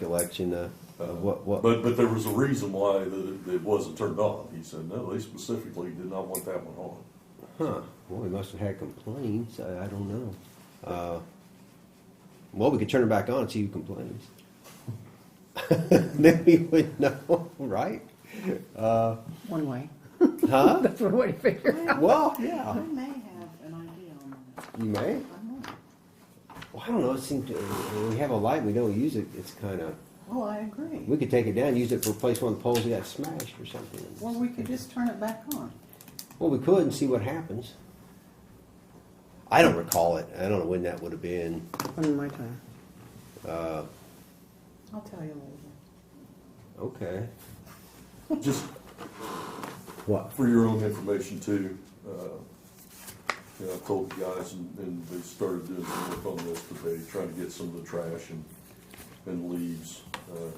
recollection of, of what, what, But, but there was a reason why that it wasn't turned on. He said, no, they specifically did not want that one on. huh, well, we must have had complaints, I, I don't know. Uh, Well, we could turn it back on and see who complains. Then we would know, right? One way. Huh? That's what we figure. Well, yeah, I may have an idea on that. you may. I don't know. Well, I don't know, it seemed, to- when we have a light, and we don't use it, it's kinda, Well, I agree. we could take it down, use it to replace one of the poles that got smashed or something. Well, we could just turn it back on. Well, we could and see what happens. I don't recall it. I don't know when that would have been. One my time. I'll tell you later. Okay. Just What? for your own information too, uh, you know, I told the guys and, and they started doing some work on this today, trying to get some of the trash and, and leaves, uh,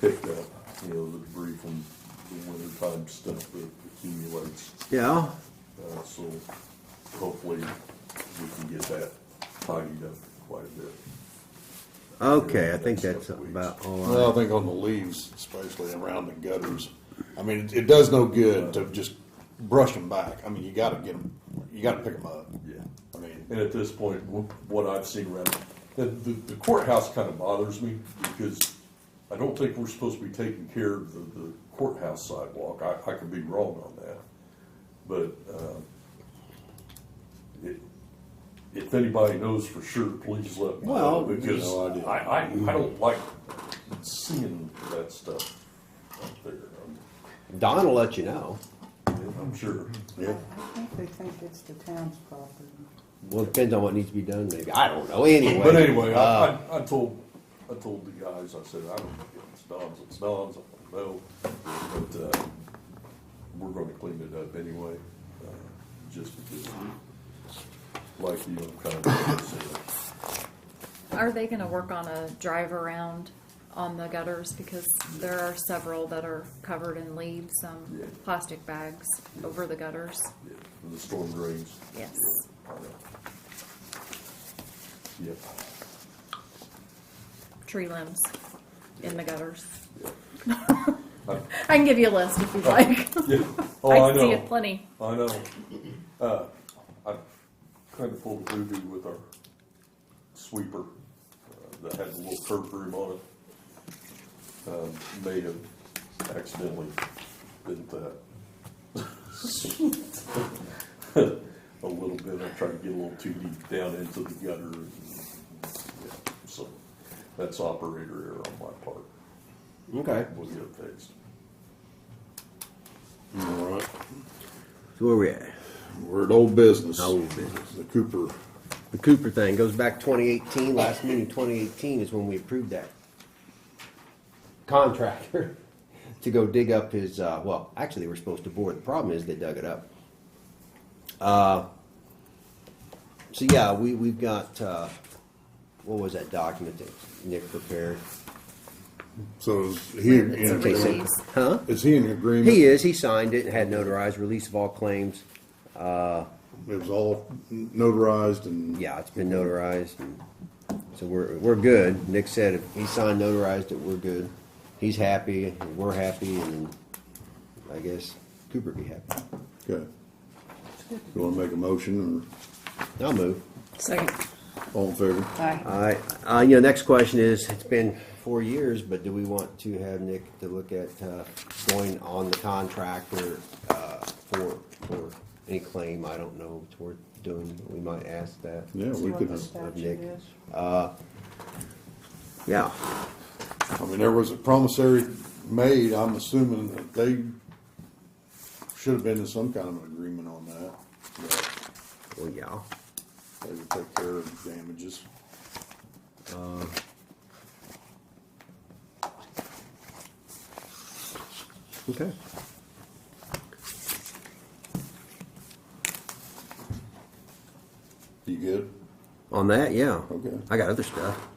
picked up, you know, the debris from the wintertime stuff that accumulates. Yeah. Uh, so hopefully we can get that tidied up quite a bit. Okay, I think that's about all. I, Well, I think on the leaves, especially around the gutters, I mean, it, it does no good to just brush them back. I mean, you gotta get them, you gotta pick them up. Yeah. I mean, And at this point, wh- what I've seen around, the, the the courthouse kind of bothers me because I don't think we're supposed to be taking care of the, the courthouse sidewalk. I, I could be wrong on that. But, um, it, if anybody knows for sure, please let me know Well, because no idea. I, I, I don't like seeing that stuff out there. I'm- Don will let you know. I'm sure. yeah, I think they think it's the town's property. Well, it depends on what needs to be done. Maybe I don't know. Anyway. But anyway, I, uh, I, I told, I told the guys, I said, I don't know, it's Don's, it's Don's, I don't know, but, uh, we're gonna clean it up anyway, uh, just because, like you, I'm kind of, saying, Are they gonna work on a drive around on the gutters? Because there are several that are covered in leaves, some Yeah. plastic bags over the gutters. yeah, for the storm drains. Yes. Yeah, I know. Yep, Tree limbs in the gutters. yep. I can give you a list if you'd like. Yeah, oh, I I see know, it plenty. I know. Uh, I kind of pulled a voodoo with our sweeper uh, that had a little curved room on it. Um, May have accidentally bent that. A little bit, I tried to get a little too deep down into the gutter. and, yeah, So that's operator error on my part. okay. We'll get it fixed. all right. So where we at? We're at old business. Old business. The Cooper, The Cooper thing goes back 2018. Last meeting 2018 is when we approved that contractor to go dig up his. Uh, well, actually, they were supposed to bore. The problem is they dug it up. Uh, so yeah, we we've got uh, what was that document that Nick prepared? so is he, It's a in- release. Huh? is he in agreement? He is. He signed it and had notarized release of all claims. It was all notarized and. Yeah, it's been notarized, and so we're, we're good. Nick said if he signed notarized it, we're good. He's happy, and we're happy, and I guess Cooper be happy. Okay. You wanna make a motion I'll move. Second. or all in favor? Aye. All right, uh, you know, next question is, it's been four years, but do we want to have Nick to look at, uh, going on the contractor, uh, for, for any claim, I don't know, toward doing, we might ask that. Yeah, See we what could, the Of statute Nick. Uh, is. Yeah, I mean, there was a promissory made, I'm assuming that they should have been in some kind of agreement on that. that well, yeah. They would take care of the damages. Okay. You good? On that, yeah. Okay. I got other stuff.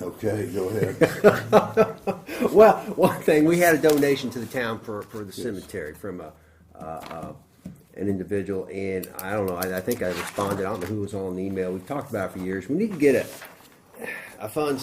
Okay, go ahead. Well, one thing, we had a donation to the town for, for the cemetery from a, uh, uh, an individual, and I don't know, I, I think I responded, I don't know who was on the email, we've talked about it for years, we need to get a, I find